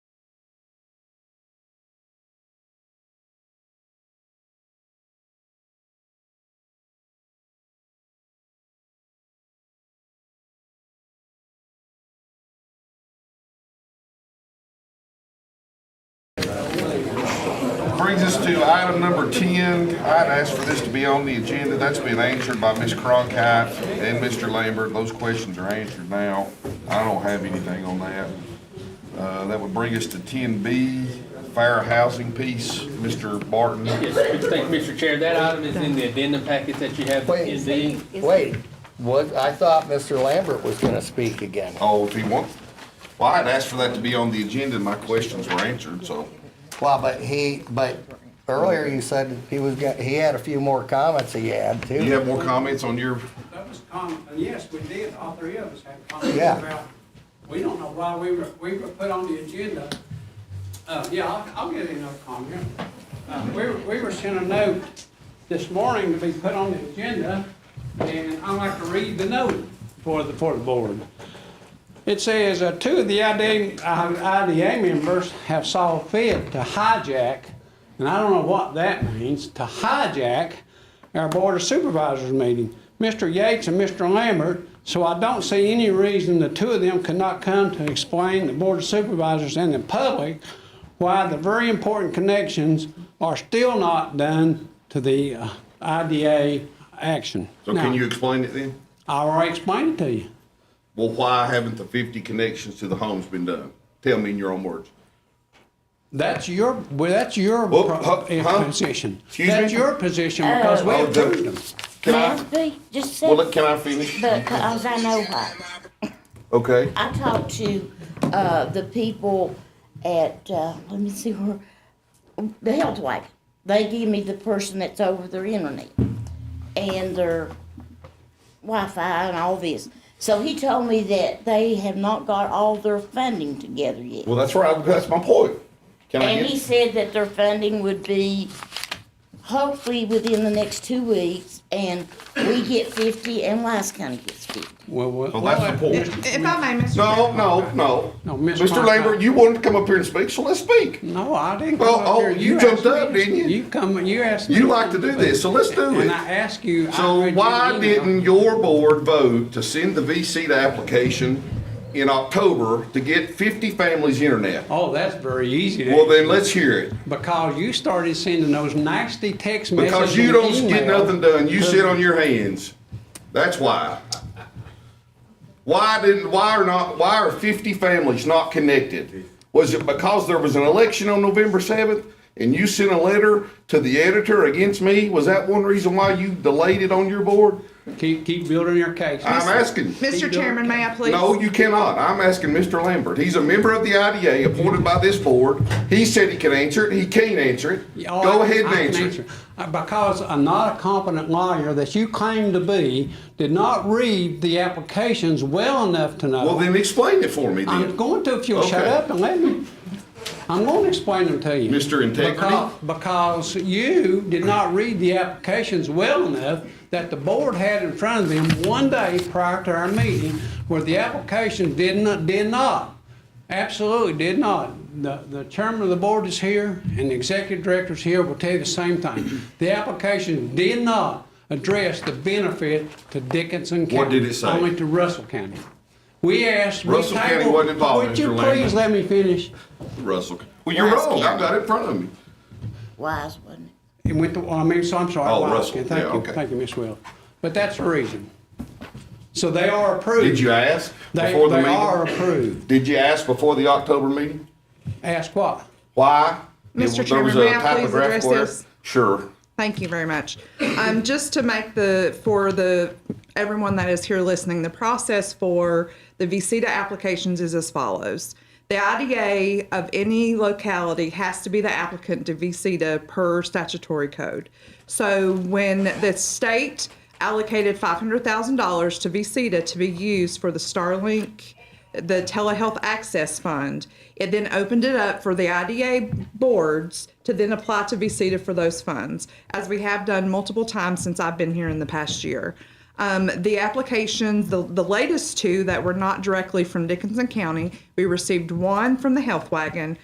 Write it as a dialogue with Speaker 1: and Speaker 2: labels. Speaker 1: brings us to item number 10. I'd asked for this to be on the agenda. That's been answered by Ms. Cronkite and Mr. Lambert. Those questions are answered now. I don't have anything on that. Uh, That would bring us to 10B, fair housing piece. Mr. Barton,
Speaker 2: Yes, thank you, Mr. Chair. That item is in the addendum packet that you have
Speaker 3: Wait.
Speaker 2: in D.
Speaker 3: Wait, what, I thought Mr. Lambert was gonna speak again.
Speaker 1: oh, if he wants. Well, I'd asked for that to be on the agenda, and my questions were answered, so.
Speaker 3: Well, but he, but earlier you said he was, go- he had a few more comments he had
Speaker 1: Do you
Speaker 3: too.
Speaker 1: have more comments on your,
Speaker 4: That was common, and yes, we did, all three of us had comments
Speaker 3: Yeah.
Speaker 4: about, we don't know why we were, we were put on the agenda. Uh, yeah, I'll, I'll get another comment. Uh, we, were- we were sent a note this morning to be put on the agenda, and I'd like to read the note for the, for the board. It says, uh, two of the IDA, uh, IDA members have saw fit to hijack, and I don't know what that means, to hijack our Board of Supervisors meeting, Mr. Yates and Mr. Lambert, so I don't see any reason the two of them could not come to explain the Board of Supervisors and the public why the very important connections are still not done to the uh, IDA action.
Speaker 1: so can
Speaker 4: Now,
Speaker 1: you explain it then?
Speaker 4: I already explained it to you.
Speaker 1: Well, why haven't the 50 connections to the homes been done? Tell me in your own words.
Speaker 4: That's your, well, that's your
Speaker 1: Whoa,
Speaker 4: pro-
Speaker 1: Oh, huh,
Speaker 4: eh,
Speaker 1: huh?
Speaker 4: position.
Speaker 1: Excuse
Speaker 4: That's
Speaker 1: me?
Speaker 4: your position because we
Speaker 1: Oh, the-
Speaker 4: approved them.
Speaker 1: Can
Speaker 5: May I
Speaker 1: I,
Speaker 5: speak just a
Speaker 1: well,
Speaker 5: second?
Speaker 1: look, can I finish?
Speaker 5: Because I know why.
Speaker 1: Okay.
Speaker 5: I talked to, uh, the people at, uh, let me see where, the Health Wagon. They give me the person that's over their internet and their Wi-Fi and all this. So he told me that they have not got all their funding together yet.
Speaker 1: Well, that's right. That's my point. Can I
Speaker 5: And he
Speaker 1: get?
Speaker 5: said that their funding would be hopefully within the next two weeks, and we get fifty and Wise County gets fifty.
Speaker 4: Well, well.
Speaker 1: Well, Oh, that's the point.
Speaker 6: If I may, Mr.
Speaker 1: No,
Speaker 6: Chair.
Speaker 1: no, no.
Speaker 4: No, Ms.
Speaker 1: Mr.
Speaker 4: Cronkite.
Speaker 1: Lambert, you wanted to come up here and speak, so let's speak.
Speaker 4: No, I didn't.
Speaker 1: Well,
Speaker 4: come up
Speaker 1: oh,
Speaker 4: here.
Speaker 1: you
Speaker 4: asked
Speaker 1: jumped
Speaker 4: me-
Speaker 1: up, didn't you?
Speaker 4: You come, you asked. me
Speaker 1: You like to do this, so let's do
Speaker 4: And
Speaker 1: it.
Speaker 4: I asked you. I
Speaker 1: So
Speaker 4: read your
Speaker 1: why
Speaker 4: email.
Speaker 1: didn't your board vote to send the VC to application in October to get 50 families internet?
Speaker 4: Oh, that's very easy
Speaker 1: Well,
Speaker 4: to,
Speaker 1: then let's hear it.
Speaker 4: because you started sending those nasty text messages.
Speaker 1: Because you
Speaker 4: and
Speaker 1: don't get
Speaker 4: email.
Speaker 1: nothing done. You sit on your hands. That's why. Why didn't, why are not, why are fifty families not connected? Was it because there was an election on November seventh and you sent a letter to the editor against me? Was that one reason why you delayed it on your board?
Speaker 4: Keep, keep building your case.
Speaker 1: I'm asking.
Speaker 6: Mr. Chairman, may I please?
Speaker 1: No, you cannot. I'm asking Mr. Lambert. He's a member of the IDA appointed by this board. He said he can answer it. He can't answer it.
Speaker 4: Oh,
Speaker 1: Go
Speaker 4: I-
Speaker 1: ahead and
Speaker 4: I can
Speaker 1: answer it.
Speaker 4: Uh, Because I'm not a competent lawyer that you claim to be, did not read the applications well enough to know.
Speaker 1: Well, then explain it for me then.
Speaker 4: I'm going to if you'll shut
Speaker 1: Okay.
Speaker 4: up and let me. I'm going to explain them to you.
Speaker 1: Mr. Integrity?
Speaker 4: Because- Because you did not read the applications well enough that the board had in front of them one day prior to our meeting where the application did not, did not, absolutely did not. The, the chairman of the board is here and the executive director's here will tell you the same thing. The application did not address the benefit to Dickinson County.
Speaker 1: What did it say?
Speaker 4: Only to Russell County. We asked. we
Speaker 1: Russell County
Speaker 4: tabled-
Speaker 1: wasn't involved,
Speaker 4: Would you
Speaker 1: Mr. Lambert.
Speaker 4: please let me finish?
Speaker 1: Russell. Well, you're
Speaker 5: Wise
Speaker 1: wrong. I
Speaker 5: County.
Speaker 1: got it in front of me.
Speaker 5: Wise one.
Speaker 4: It went to, I mean, so I'm sorry.
Speaker 1: Oh,
Speaker 4: Wise
Speaker 1: Russell.
Speaker 4: County.
Speaker 1: Yeah,
Speaker 4: Thank you,
Speaker 1: okay.
Speaker 4: thank you, Miss Will. But that's the reason. So they are approved.
Speaker 1: Did you ask
Speaker 4: They,
Speaker 1: before the
Speaker 4: they
Speaker 1: meeting?
Speaker 4: are approved.
Speaker 1: Did you ask before the October meeting?
Speaker 4: Ask what?
Speaker 1: Why?
Speaker 6: Mr.
Speaker 1: There
Speaker 6: Chairman,
Speaker 1: was a
Speaker 6: may I please
Speaker 1: typographical
Speaker 6: address
Speaker 1: error?
Speaker 6: this?
Speaker 1: Sure.
Speaker 6: Thank you very much. Um, just to make the, for the, everyone that is here listening, the process for the VCTA applications is as follows. The IDA of any locality has to be the applicant to VCTA per statutory code. So when the state allocated $500,000 to VCTA to be used for the Starlink the telehealth access fund. It then opened it up for the IDA boards to then apply to be seated for those funds, as we have done multiple times since I've been here in the past year. Um, the applications, the, the latest two that were not directly from Dickinson County, we received one from the Health Wagon